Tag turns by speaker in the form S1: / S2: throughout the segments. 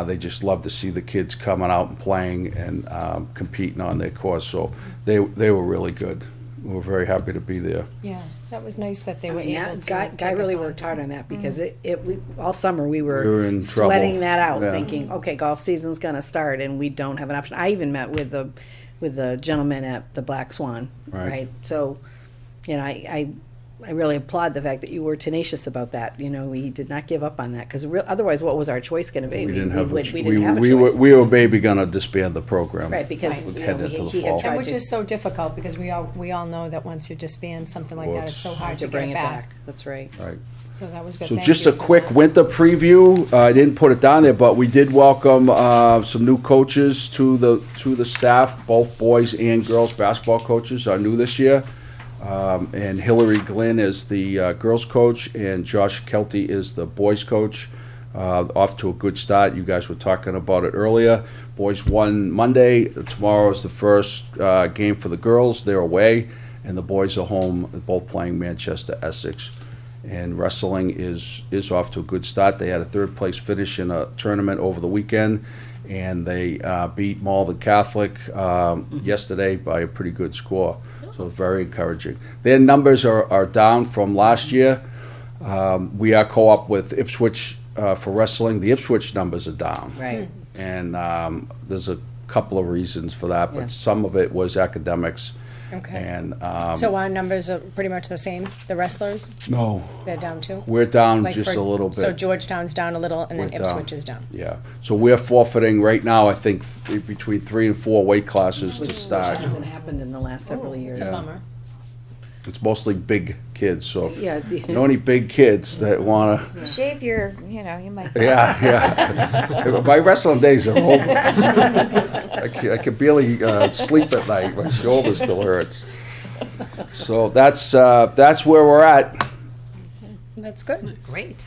S1: Uh, They just love to see the kids coming out and playing and um, competing on their course, so they, they were really good. We were very happy to be there.
S2: Yeah, that was nice that they
S3: I
S2: were
S3: mean,
S2: able
S3: that
S2: to.
S3: Guy,
S2: take
S3: Guy
S2: us
S3: really
S2: on. Mm-hmm.
S3: worked hard on that because it, it, we, all summer
S1: We
S3: we
S1: were
S3: were
S1: in trouble.
S3: sweating that out,
S1: Yeah.
S3: thinking, okay, golf season's gonna start and we don't have an option. I even met with the, with the gentleman at the Black Swan,
S1: Right.
S3: right? So, you know, I, I, I really applaud the fact that you were tenacious about that, you know, we did not give up on that, cause real, otherwise what was our choice gonna be?
S1: We didn't have, a
S3: would-
S1: ch-
S3: We
S1: we,
S3: didn't have a
S1: we were,
S3: choice,
S1: we were maybe gonna disband the program.
S3: right, because,
S1: We
S3: you know,
S1: headed
S3: he
S1: into the
S3: he had
S1: fall.
S3: tried
S2: And
S3: to.
S2: which is so difficult because we all, we all know that once you disband something like that, it's so hard to get
S3: bring
S2: it back.
S3: That's right.
S1: Right.
S2: So that was good.
S1: So
S2: Thank
S1: just
S2: you
S1: a
S2: for
S1: quick
S2: that.
S1: winter preview. Uh, I didn't put it down there, but we did welcome uh, some new coaches to the to the staff. Both boys and girls basketball coaches are new this year. Um, and Hillary Glynn is the uh, girls coach, and Josh Kelty is the boys coach. Uh, off to a good start. You guys were talking about it earlier. Boys won Monday. Tomorrow is the first uh, game for the girls. They're away, and the boys are home. Both playing Manchester Essex and wrestling is is off to a good start. They had a third place finish in a tournament over the weekend, and they uh, beat Mall the Catholic um,
S2: Mm-hmm.
S1: yesterday by a pretty good score. So very encouraging. Their numbers are, are down from last year. Um, we are co-op with Ipswich uh, for wrestling. The Ipswich numbers are down.
S3: Right.
S1: And um, there's a couple of reasons for that, but
S3: Yeah.
S1: some of it was academics.
S2: Okay.
S1: And um,
S2: So our numbers are pretty much the same, the wrestlers,
S1: no,
S2: they're down two?
S1: we're down
S2: Like
S1: just
S2: for-
S1: a little bit.
S2: So Georgetown's down a little and then
S1: We're down.
S2: Ipswich is down.
S1: Yeah, so we're forfeiting right now, I think, th- between three and four weight classes to start.
S3: Hasn't happened in the last several years.
S2: It's a bummer.
S1: It's mostly big kids, so if
S3: Yeah.
S1: you know any big kids that wanna,
S4: Shave your, you know, you might.
S1: yeah, yeah. My wrestling days are over. I can, I can barely, uh, sleep at night, my shoulder still hurts. So that's, uh, that's where we're at.
S2: That's good.
S4: Great.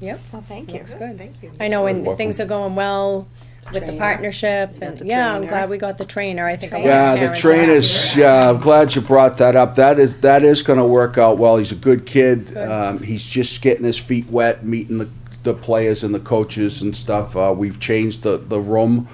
S2: Yep,
S4: Well, thank you.
S2: looks good.
S4: Thank you.
S2: I know
S1: You're
S2: when
S1: welcome.
S2: things are going well with the
S3: Trainer.
S2: partnership
S3: got
S2: and,
S3: the
S2: yeah, I'm
S3: trainer.
S2: glad we got the trainer. I think a lot
S1: Yeah,
S2: of
S1: the
S2: parents are happy
S1: train
S2: with
S1: is,
S2: that.
S1: yeah, I'm glad you brought that up. That is, that is gonna work out well. He's a good kid. Um, he's just getting his feet wet, meeting the, the players and the coaches and stuff. Uh, we've changed the, the room.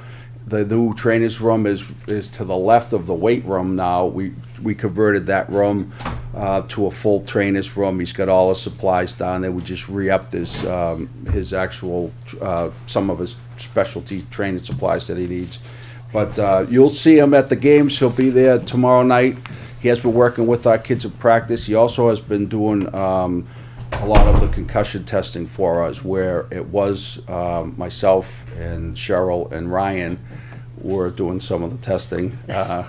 S1: The new trainer's room is, is to the left of the weight room now. We, we converted that room, uh, to a full trainer's room. He's got all his supplies down there. We just re-upped his, um, his actual, uh, some of his specialty training supplies that he needs. But uh, you'll see him at the games. He'll be there tomorrow night. He has been working with our kids at practice. He also has been doing um, a lot of the concussion testing for us, where it was um, myself and Cheryl and Ryan were doing some of the testing. Uh,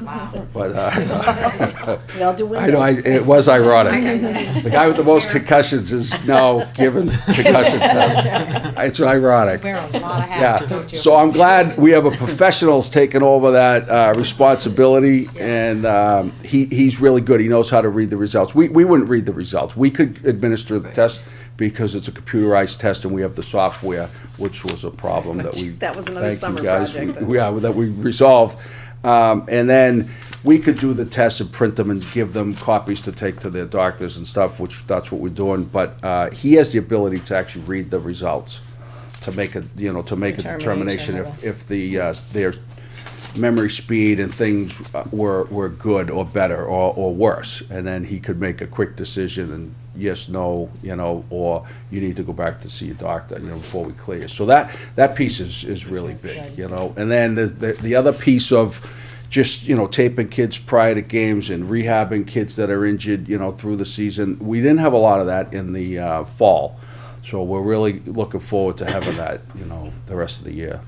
S1: But uh,
S3: We all do windows.
S1: I know I, it was ironic. The guy with the most concussions is now given concussion tests. It's ironic.
S2: Wear a lot of hats,
S1: Yeah,
S2: don't you?
S1: so I'm glad we have a professional's taking over that uh, responsibility, and um, he, he's really good. He knows how to read the results. We, we wouldn't read the results. We could administer the test because it's a computerized test and we have the software, which was a problem that we.
S3: That was another
S1: thank you
S3: summer
S1: guys.
S3: project.
S1: We- Yeah, that we resolved. Um, And then we could do the tests and print them and give them copies to take to their doctors and stuff, which that's what we're doing. But uh, he has the ability to actually read the results to make a, you know, to make a
S2: Determination
S1: determination
S2: of
S1: if, if the, uh, their memory speed and things uh, were, were good or better or, or worse. And then he could make a quick decision and yes, no, you know, or you need to go back to see a doctor, you know, before we clear you. So that, that piece is, is really
S2: That's
S1: big,
S2: good.
S1: you know. And then the, the, the other piece of just, you know, taping kids prior to games and rehabbing kids that are injured, you know, through the season. We didn't have a lot of that in the, uh, fall. So we're really looking forward to having that, you know, the rest of the year.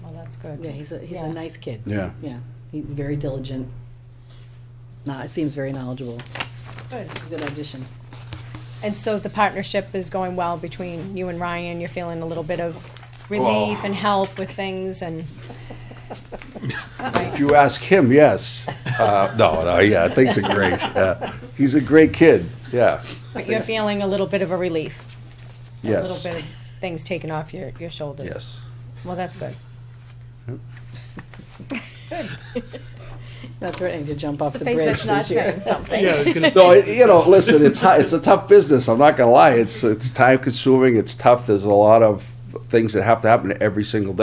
S2: Well, Oh, that's good.
S3: Yeah, he's a, he's
S2: Yeah.
S3: a nice kid.
S1: Yeah.
S3: Yeah, he's very diligent. Nah, it seems very knowledgeable.
S2: Good.
S3: It's a Good audition.
S2: And so the partnership is going well between you and Ryan, you're feeling a little bit of
S1: Oh.
S2: relief and help with things and,
S1: If you ask him, yes. Uh, no, no, yeah, things are great. Uh, he's a great kid. Yeah,
S2: but you're feeling a little bit of a relief. A
S1: yes,
S2: little bit of things taken off your, your shoulders.
S1: yes.
S2: Well, that's good.
S3: He's not threatening to jump off the
S4: Face
S3: bridge
S4: that's not
S3: this year.
S4: saying something.
S5: Yeah, I was gonna
S1: No,
S5: say,
S1: it, you know, listen, it's hu- it's a tough business. I'm not gonna lie. It's it's time consuming. It's tough. There's a lot of things that have to happen every single day.